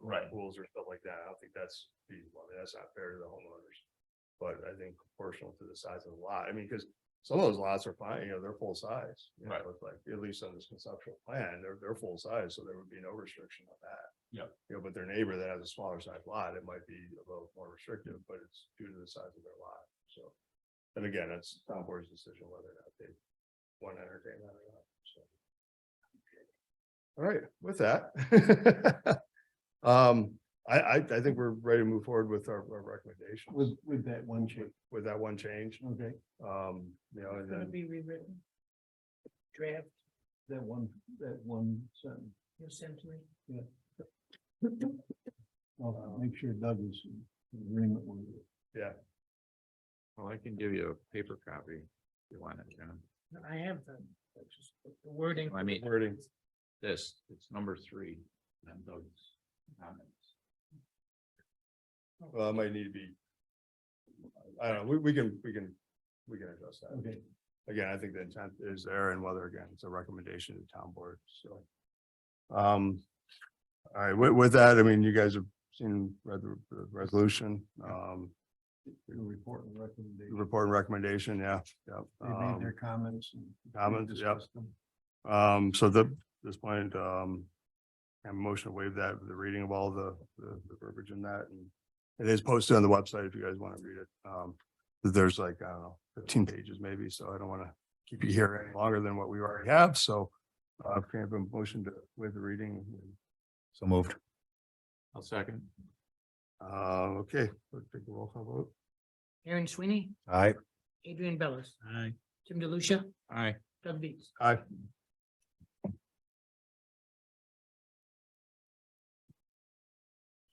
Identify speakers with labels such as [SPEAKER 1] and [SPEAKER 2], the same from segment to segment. [SPEAKER 1] Right.
[SPEAKER 2] Pools or stuff like that. I don't think that's feasible. I mean, that's not fair to the homeowners. But I think proportional to the size of the lot, I mean, because some of those lots are fine, you know, they're full size. you
[SPEAKER 1] Right.
[SPEAKER 2] know, it's Like, at least on this conceptual plan, they're, they're full size, so there would be no restriction on that.
[SPEAKER 1] Yep.
[SPEAKER 2] You know, but their neighbor that has a smaller size lot, it might be a little more restrictive, but it's due to the size of their lot, so. And again, it's town board's decision whether or not they want to entertain that or not, so. All right, with that. Um, I, I, I think we're ready to move forward with our, our recommendation.
[SPEAKER 3] With, with that one change,
[SPEAKER 2] With that one change,
[SPEAKER 3] okay,
[SPEAKER 2] um, you know, and
[SPEAKER 4] Gonna
[SPEAKER 2] then,
[SPEAKER 4] be rewritten. Draft
[SPEAKER 3] that one, that one sentence.
[SPEAKER 4] essentially.
[SPEAKER 3] I'll make sure Doug is in agreement with it.
[SPEAKER 5] Well, I can give you a paper copy if you want it, John.
[SPEAKER 4] I have the it's just the wording.
[SPEAKER 5] I mean,
[SPEAKER 2] wording,
[SPEAKER 5] this, it's number three, and those comments.
[SPEAKER 2] uh, might need to be. I don't know, we, we can, we can, we can adjust that.
[SPEAKER 3] Okay,
[SPEAKER 2] again, I think the intent is there and whether again, it's a recommendation to town board, so. Um, all right, with, with that, I mean, you guys have seen, read the, the resolution, um,
[SPEAKER 3] your report and recommendation.
[SPEAKER 2] report and recommendation, yeah, yeah.
[SPEAKER 3] They made
[SPEAKER 2] Um,
[SPEAKER 3] their comments. and we
[SPEAKER 2] comments, yep.
[SPEAKER 3] discussed them.
[SPEAKER 2] um, so the, this point, um, I'm motion to waive that, the reading of all the, the the verbiage in that and it is posted on the website if you guys want to read it. Um, there's like, I don't know, fifteen pages maybe, so I don't want to keep you here any longer than what we already have, so uh, can I have a motion to waive the reading? So moved.
[SPEAKER 5] I'll second.
[SPEAKER 2] Uh, okay, let's take a roll call vote.
[SPEAKER 4] Aaron Sweeney,
[SPEAKER 2] Aye.
[SPEAKER 4] Adrian Bellis,
[SPEAKER 5] Aye.
[SPEAKER 4] Tim DeLucia,
[SPEAKER 5] Aye.
[SPEAKER 4] Doug Beats.
[SPEAKER 2] Aye.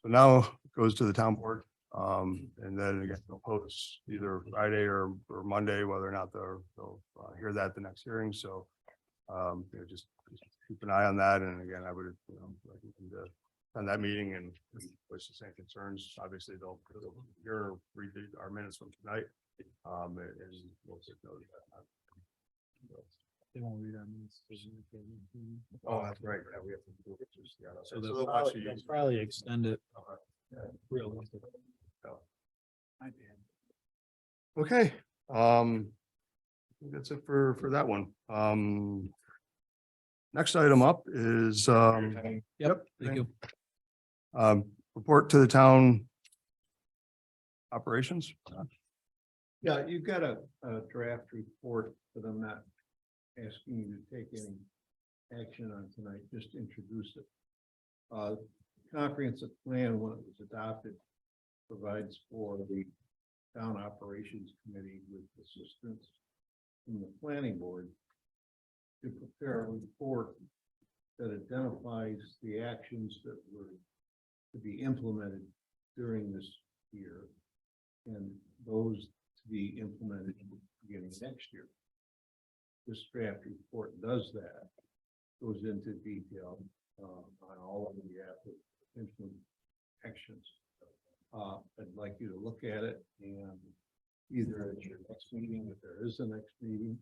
[SPEAKER 2] So now it goes to the town board, um, and then again, they'll post either Friday or, or Monday, whether or not they'll, they'll uh, hear that at the next hearing, so. Um, you know, just, just keep an eye on that, and again, I would, you know, like, you can, uh, on that meeting and voice the same concerns, obviously they'll, they'll hear, read the- our minutes from tonight. Um, and we'll take note of that.
[SPEAKER 3] They won't read our minutes.
[SPEAKER 2] Oh, that's right. Yeah, we have to do it. just, yeah, that's right. So they'll actually use-
[SPEAKER 3] probably extend it.
[SPEAKER 2] Okay.
[SPEAKER 3] Realistically.
[SPEAKER 2] So.
[SPEAKER 3] I did.
[SPEAKER 2] Okay, um, I think that's it for, for that one. Um, next item up is, um, Yep, thank you. um, report to the town operations.
[SPEAKER 3] Yeah, you've got a, a draft report, but I'm not asking you to take any action on tonight, just introduce it. Uh, comprehensive plan, when it was adopted, provides for the town operations committee with assistance from the planning board to prepare a report that identifies the actions that were to be implemented during this year and those to be implemented beginning next year. This draft report does that, goes into detail uh, on all of the applicant actions. Uh, I'd like you to look at it and either at your next meeting, if there is a next meeting,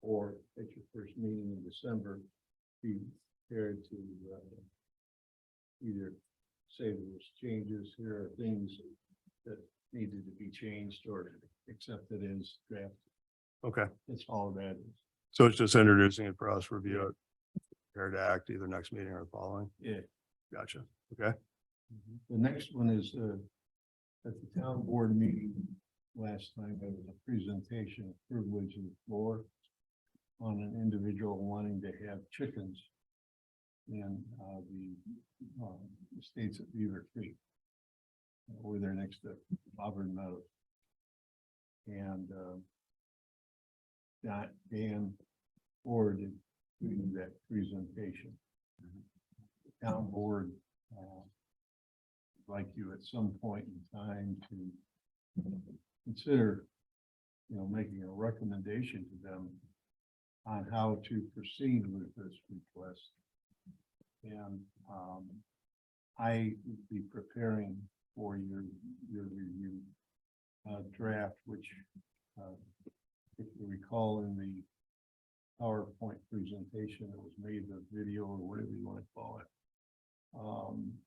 [SPEAKER 3] or at your first meeting in December, be prepared to uh, either say there was changes, here are things that needed to be changed or accepted as draft.
[SPEAKER 2] Okay,
[SPEAKER 3] That's all that is.
[SPEAKER 2] so it's just introducing it for us, review it, prepare to act either next meeting or the following.
[SPEAKER 3] Yeah.
[SPEAKER 2] Gotcha.
[SPEAKER 3] The next one is, uh, at the town board meeting last time, there was a presentation of privilege and floor on an individual wanting to have chickens in, uh, the, um, estates at Beaver Creek. uh, Over there next to Auburn Meadows. And, um, Don, Dan Ford is doing that presentation. Town board, uh, like you at some point in time to consider, you know, making a recommendation to them on how to proceed with this request. And, um, I would be preparing for your, your review, uh, draft, which, uh, if you recall in the PowerPoint presentation that was made, the video or whatever you want to call it, Um,